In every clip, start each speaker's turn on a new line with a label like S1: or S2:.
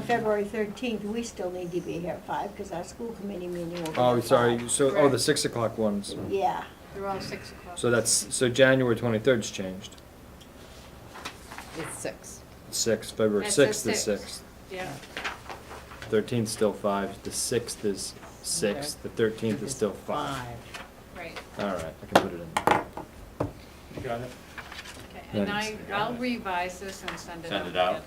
S1: February thirteenth, we still need to be here at five, because our school committee meeting will be at
S2: Oh, sorry,
S1: five.
S2: so, oh, the
S3: Right.
S2: six o'clock ones.
S1: Yeah,
S3: They're all six o'clock.
S2: So that's, so January twenty-third's changed.
S4: It's six.
S2: Six, February
S3: That says
S2: sixth is
S3: six.
S2: six.
S3: Yeah,
S2: Thirteenth's still five, the sixth is six,
S4: Okay.
S2: the thirteenth is still five.
S3: right,
S2: All right, I can put it in.
S5: Got it?
S3: okay, and
S2: Nice.
S3: I, I'll revise this and send it out.
S6: Send it out?
S3: again.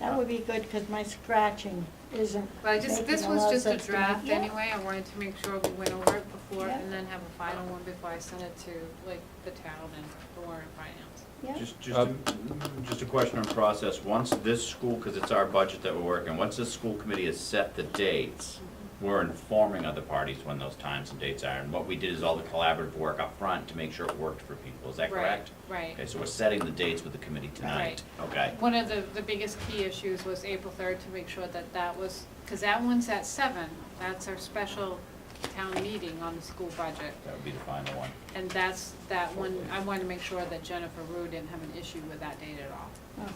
S1: that would be good, because my scratching isn't
S3: But I just,
S1: making
S3: this
S1: a
S3: was
S1: lot of
S3: just a
S1: sense to me.
S3: draft
S1: Yeah.
S3: anyway, I wanted to make sure we went over it before,
S1: Yeah.
S3: and then have a final one before I send it to, like, the town and the Warren Finance.
S1: Yeah.
S6: Just, just, a- just a question on process. Once this school, because it's our budget that we're working, once this school committee has set the dates, we're informing other parties when those times and dates are. And what we did is all the collaborative work up front to make sure it worked for people. Is that correct?
S3: Right,
S6: Okay,
S3: right.
S6: so we're setting the dates with the committee tonight. Okay.
S3: One of the, the biggest key issues was April third, to make sure that that was, because that one's at seven, that's our special town meeting on the school budget.
S6: That would be the final one.
S3: And that's, that one, I wanted to make sure that Jennifer Rue didn't have an issue with that date at all.
S1: Okay.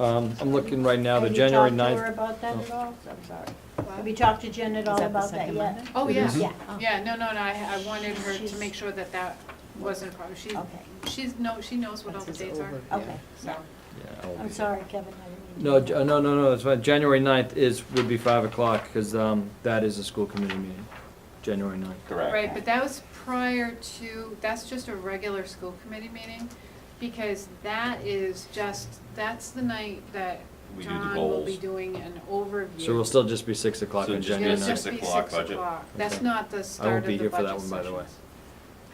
S2: Um, I'm looking right now, the January ninth.
S1: Have you talked to her about that
S2: oh.
S1: at all? I'm sorry.
S3: What?
S1: Have you talked to Jen at
S4: Is
S1: all
S4: that the
S1: about that
S4: second
S1: yet?
S4: Monday?
S3: Oh,
S2: It
S3: yeah.
S2: is?
S1: Yeah.
S3: Yeah, no, no, no, I, I wanted her to
S1: She's-
S3: make sure that that wasn't a problem. She,
S1: Okay. Oh.
S3: she's, no, she knows what all
S4: That's
S3: the
S4: his
S3: dates are,
S4: overview.
S1: Okay,
S3: so.
S2: Yeah,
S3: Oh.
S2: I'll
S1: I'm
S2: be-
S1: sorry, Kevin, I didn't mean to.
S2: No, J- uh, no, no, no, that's fine. January ninth is, would be five o'clock, because, um, that is a school committee meeting, January ninth.
S6: Correct.
S3: Right, but that was prior to, that's just a regular school committee meeting, because that is just, that's the night that
S6: We do the
S3: John will be
S6: goals.
S3: doing an overview.
S2: So we'll still just be six o'clock
S6: So
S2: on
S6: just-
S3: It'll
S2: January
S6: Yeah,
S3: just
S2: ninth.
S6: six
S3: be
S6: o'clock budget.
S3: o'clock. That's
S2: Okay.
S3: not the start of
S2: be
S3: the
S2: here for that
S3: budget
S2: one, by the way.
S3: sessions.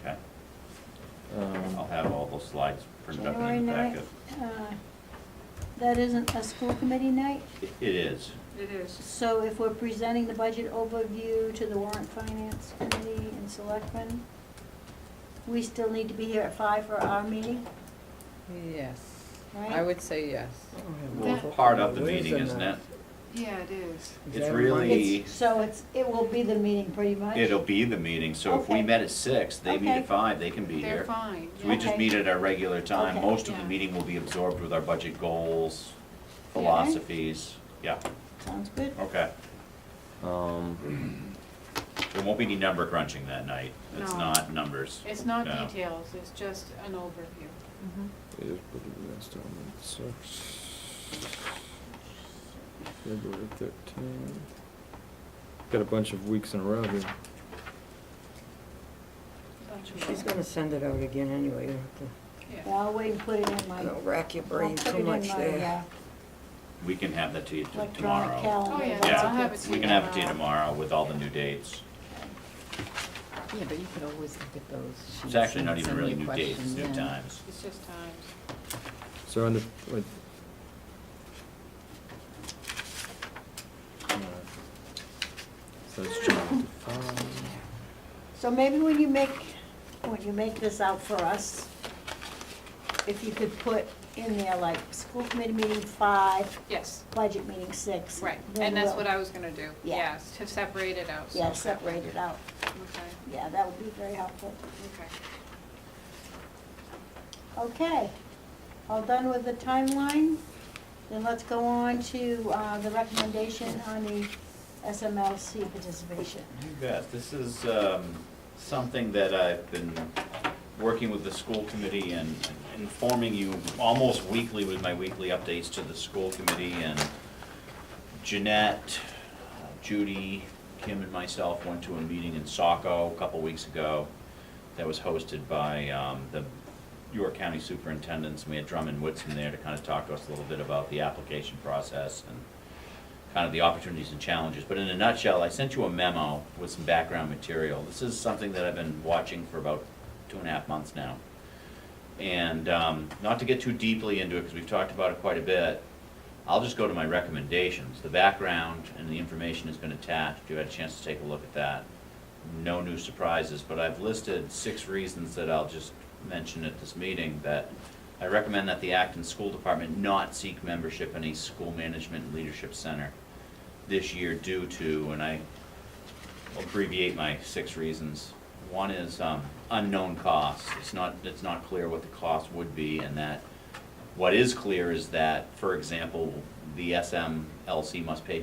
S6: Okay.
S2: Um,
S6: I'll have all those slides printed up
S1: January
S6: in the
S1: ninth,
S6: packet.
S1: uh, that isn't a school committee night?
S6: It it is.
S3: It is.
S1: So if we're presenting the budget overview to the warrant finance committee and selectmen, we still need to be here at five for our meeting,
S4: Yes. I
S1: right?
S4: would say yes.
S6: Well,
S3: That-
S6: part of the meeting, isn't it?
S3: Yeah, it is.
S6: It's really-
S1: It's- So it's, it will be the meeting pretty much?
S6: It'll be the meeting, so if we
S1: Okay.
S6: met at six, they meet
S1: Okay.
S6: at five, they can be here.
S3: They're fine.
S6: So we
S3: yeah.
S6: just meet at our regular time.
S1: Okay.
S6: Most of the
S3: Yeah.
S6: meeting will be absorbed with our budget goals,
S3: Okay.
S6: philosophies. Yeah,
S1: Sounds good.
S6: okay.
S2: Um,
S6: There won't be any number crunching that night. It's
S3: No.
S6: not numbers.
S3: It's not
S6: No.
S3: details, it's just an overview.
S2: February thirteenth. Got a bunch of weeks in a row here.
S7: She's gonna send it out again anyway, you have to,
S3: Yeah.
S1: Yeah, I'll wait and put it in my,
S7: you know, rack your
S1: I'll
S7: brain
S1: put it
S7: too
S1: in my
S7: much
S1: uh,
S7: there.
S6: We can have that to you t-
S1: electronic
S6: tomorrow.
S1: calendar.
S3: Oh, yeah,
S1: That's a
S6: Yeah.
S3: I'll have
S1: good-
S3: it to
S6: We
S3: you
S6: can have it to you
S3: tomorrow.
S6: tomorrow with all the new dates.
S4: Yeah, but you could always look at those.
S6: It's
S4: sheets
S6: actually
S4: and
S6: not even
S4: send me
S6: really
S4: a
S6: new dates, it's
S4: question
S6: new
S4: then.
S6: times.
S3: It's just times.
S2: So on the, wait. Uh, So it's January five.
S1: So maybe when you make, when you make this out for us, if you could put in there like school committee meeting five,
S3: Yes,
S1: budget meeting six.
S3: right,
S1: then
S3: and that's
S1: we'll-
S3: what I was gonna do,
S1: Yeah.
S3: yes, to separate it out. so
S1: Yeah,
S3: that-
S1: separate it out.
S3: Okay,
S1: Yeah, that would be very helpful.
S3: okay.
S1: Okay, all done with the timeline? Then let's go on to uh, the recommendation on the SMLC participation.
S6: You bet. This is um, something that I've been working with the school committee and informing you almost weekly with my weekly updates to the school committee. And Jeanette, Judy, Kim, and myself went to a meeting in Saco a couple weeks ago that was hosted by um, the York County Superintendents. We had Drummond Woodson there to kind of talk to us a little bit about the application process and kind of the opportunities and challenges. But in a nutshell, I sent you a memo with some background material. This is something that I've been watching for about two and a half months now. And um, not to get too deeply into it, because we've talked about it quite a bit, I'll just go to my recommendations. The background and the information has been attached. You had a chance to take a look at that. No new surprises, but I've listed six reasons that I'll just mention at this meeting that I recommend that the Acton School Department not seek membership in a school management and leadership center this year due to, and I abbreviate my six reasons. One is um, unknown costs. It's not, it's not clear what the cost would be and that, what is clear is that, for example, the SMLC must pay